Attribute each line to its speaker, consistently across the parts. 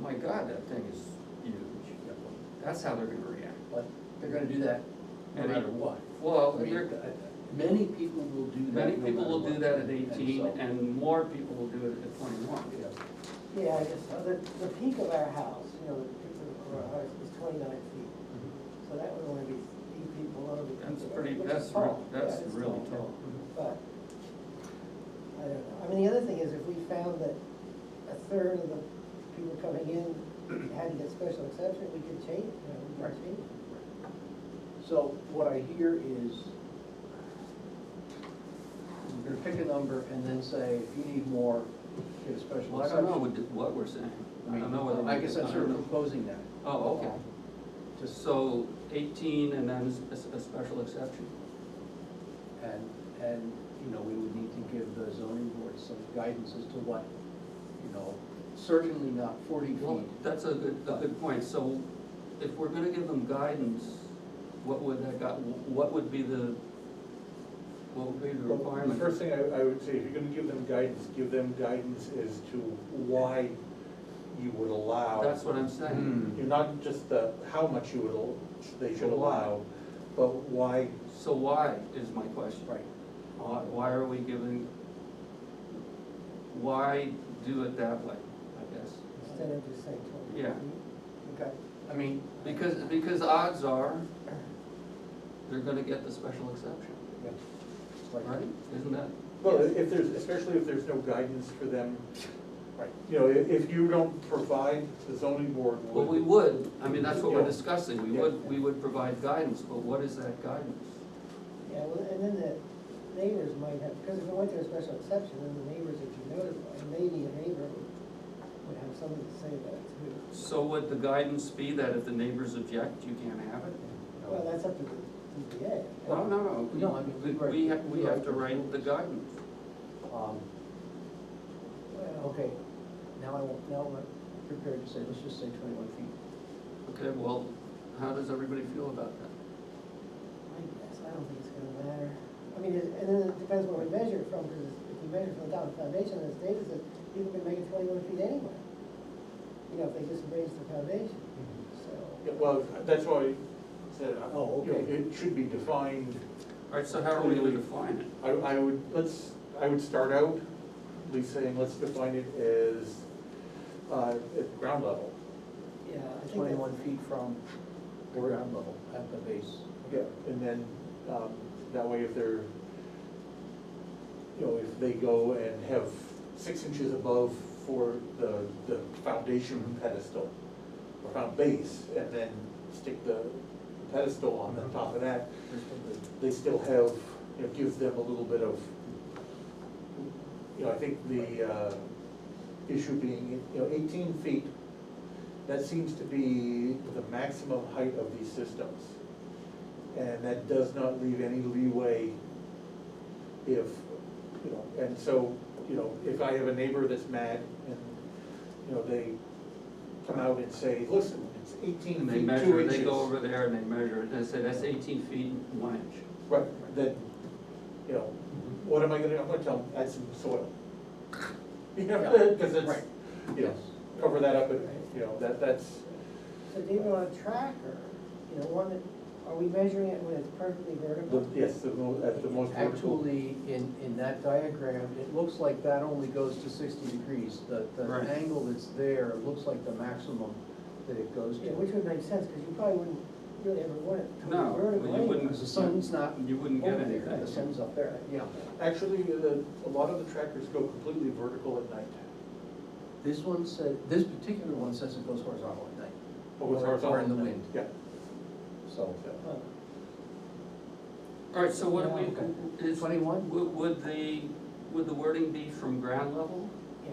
Speaker 1: my God, that thing is huge. That's how they're gonna react.
Speaker 2: But they're gonna do that no
Speaker 1: And it-
Speaker 2: matter what.
Speaker 1: Well,
Speaker 2: I mean,
Speaker 1: they're-
Speaker 2: uh, Many people will do that.
Speaker 1: Oh, many
Speaker 2: no
Speaker 1: people will
Speaker 2: matter
Speaker 1: do
Speaker 2: what.
Speaker 1: that at eighteen,
Speaker 2: so,
Speaker 1: and more people will do it at twenty-one.
Speaker 2: yeah.
Speaker 3: Yeah, I guess, so. the, the peak of our house, you know, the peak of our house is twenty-nine feet, so that would only be eight feet below the peak.
Speaker 1: That's
Speaker 3: of our-
Speaker 1: pretty,
Speaker 3: which is
Speaker 1: that's,
Speaker 3: tall.
Speaker 1: real-
Speaker 3: Yeah,
Speaker 1: that's
Speaker 3: it's
Speaker 1: really tall.
Speaker 3: But, I don't know, I mean, the other thing is if we found that a third of the people coming in had to get special exception, we could change, you know, we
Speaker 2: Right.
Speaker 3: could change. it.
Speaker 2: So what I hear is, we're gonna pick a number and then say, if you need more, get a special
Speaker 1: Well, I don't know
Speaker 2: exception.
Speaker 1: what, what we're saying. I don't know whether. we-
Speaker 2: I guess I'm
Speaker 1: don't
Speaker 2: sort of
Speaker 1: know.
Speaker 2: proposing that,
Speaker 1: Oh, okay.
Speaker 2: just,
Speaker 1: So eighteen and then a, s- a special exception?
Speaker 2: and, and, you know, we would need to give the zoning board some guidance as to what, you know, certainly not forty
Speaker 1: Well,
Speaker 2: feet.
Speaker 1: that's a good, a good point. So if we're gonna give them guidance, what would that, gu- what would be the, what would be the
Speaker 4: Well, The
Speaker 1: requirement?
Speaker 4: first thing I, I would say, if you're gonna give them guidance, give them guidance as to why you would allow.
Speaker 1: That's what I'm saying.
Speaker 4: You're not just the, how much you would, al- they should
Speaker 1: Well, why?
Speaker 4: allow, but why,
Speaker 1: So why is my question?
Speaker 2: Right.
Speaker 1: Why, why are we giving, why do it that way, I guess?
Speaker 3: Instead of just saying twenty.
Speaker 1: Yeah.
Speaker 3: Okay,
Speaker 1: I mean, because, because odds are, they're gonna get the special exception,
Speaker 2: Yeah. Like-
Speaker 1: right? Isn't that?
Speaker 4: well, if there's, especially if there's no guidance for them. Right. You know, if, if you don't provide the zoning board with.
Speaker 1: Well, we would, I mean, that's what we're
Speaker 4: Yeah.
Speaker 1: discussing, we would, we would provide guidance, but what is that guidance?
Speaker 3: yeah, well, and then the neighbors might have, because if we went to a special exception, then the neighbors, if you notify, maybe a neighbor would- would have something to say about it too.
Speaker 1: So would the guidance be that if the neighbors object, you can't have it?
Speaker 3: Well, that's up to the ZBA.
Speaker 1: No, no, no.
Speaker 2: No, I mean,
Speaker 1: We,
Speaker 2: right.
Speaker 1: we have, we have to write the guidance.
Speaker 2: Um,
Speaker 3: Well,
Speaker 2: Okay, now I won't, now I'm prepared to say, let's just say twenty-one feet.
Speaker 1: Okay, well, how does everybody feel about that?
Speaker 3: I guess, I don't think it's gonna matter. I mean, it- and then it depends where we measure it from, because if you measure from the top of the foundation, as David said, people can make it twenty-one feet anyway. You know, if they just raise the foundation, so.
Speaker 4: Yeah, Well, that's why I said, uh,
Speaker 2: Oh,
Speaker 4: you know,
Speaker 2: okay.
Speaker 4: it should be defined,
Speaker 1: All right, so how are we gonna define it?
Speaker 4: I, I would, let's, I would start out, at least saying, let's define it as, uh, at ground level.
Speaker 3: Yeah, I think
Speaker 2: Twenty-one
Speaker 3: that's,
Speaker 2: feet from the ground level at the base.
Speaker 4: Yeah, and then, um, that way if they're, you know, if they go and have six inches above for the, the foundation pedestal, or found base, and then stick the pedestal on the top of that, they still have, you know, gives them a little bit of, you know, I think the, uh, issue being, you know, eighteen feet, that seems to be the maximum height of these systems. And that does not leave any leeway if, you know, and so, you know, if I have a neighbor that's mad and, you know, they come out and say, listen, it's eighteen
Speaker 1: And they
Speaker 4: feet, two
Speaker 1: measure,
Speaker 4: inches.
Speaker 1: they go over there and they measure it, and they say, that's eighteen feet, and one inch.
Speaker 4: Right, then, you know,
Speaker 1: Mhm.
Speaker 4: what am I gonna, I'm gonna tell them, add some soil. You know, cause it's,
Speaker 2: Right.
Speaker 4: you know, cover that up, and, you know, that, that's,
Speaker 3: so David, on a tracker, you know, one that, are we measuring it when it's perfectly vertical?
Speaker 4: the- yes, the mo, at the most vertical.
Speaker 2: Actually, in, in that diagram, it looks like that only goes to sixty degrees. The, the
Speaker 1: Right.
Speaker 2: angle that's there looks like the maximum that it goes
Speaker 3: Yeah,
Speaker 2: to.
Speaker 3: which would make sense, because you probably wouldn't really ever want it to be
Speaker 1: No,
Speaker 3: vertical
Speaker 1: you
Speaker 3: anyway.
Speaker 1: wouldn't.
Speaker 2: Because the sun's not
Speaker 1: You wouldn't get
Speaker 2: over there,
Speaker 1: anything.
Speaker 2: The sun's up there, yeah.
Speaker 4: Actually, the, a lot of the trackers go completely vertical at night,
Speaker 2: This one said, this particular one says it goes horizontal at night,
Speaker 4: or with
Speaker 2: Or- or in
Speaker 4: Oh, horizontal.
Speaker 2: the wind.
Speaker 4: Yeah.
Speaker 2: so.
Speaker 3: Huh.
Speaker 1: All right, so what
Speaker 2: Yeah,
Speaker 1: do we, is, would,
Speaker 2: Twenty-one?
Speaker 1: would the, would the wording be from ground level?
Speaker 3: Yeah.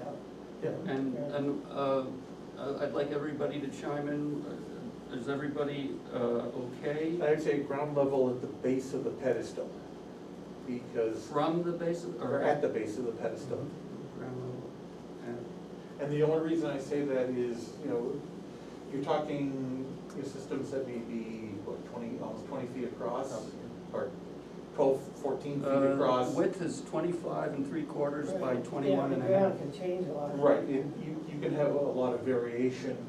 Speaker 4: Yeah,
Speaker 1: And,
Speaker 3: Yeah.
Speaker 1: and, uh, I- I'd like everybody to chime in, is everybody, uh, okay?
Speaker 4: I'd say ground level at the base of the pedestal, because,
Speaker 1: From the base of,
Speaker 4: or
Speaker 1: or
Speaker 4: at the base of the pedestal.
Speaker 2: Mm-hmm.
Speaker 1: ground level? And-
Speaker 4: And the only reason I say that is, you know, you're talking, your systems that may be, what, twenty, almost twenty feet across? Or twelve, fourteen feet
Speaker 1: Uh,
Speaker 4: across?
Speaker 1: Width is twenty-five and three quarters by
Speaker 3: Right.
Speaker 1: twenty-one and a half.
Speaker 3: Yeah, the ground can change a lot.
Speaker 4: Right, and you, you can have a lot of variation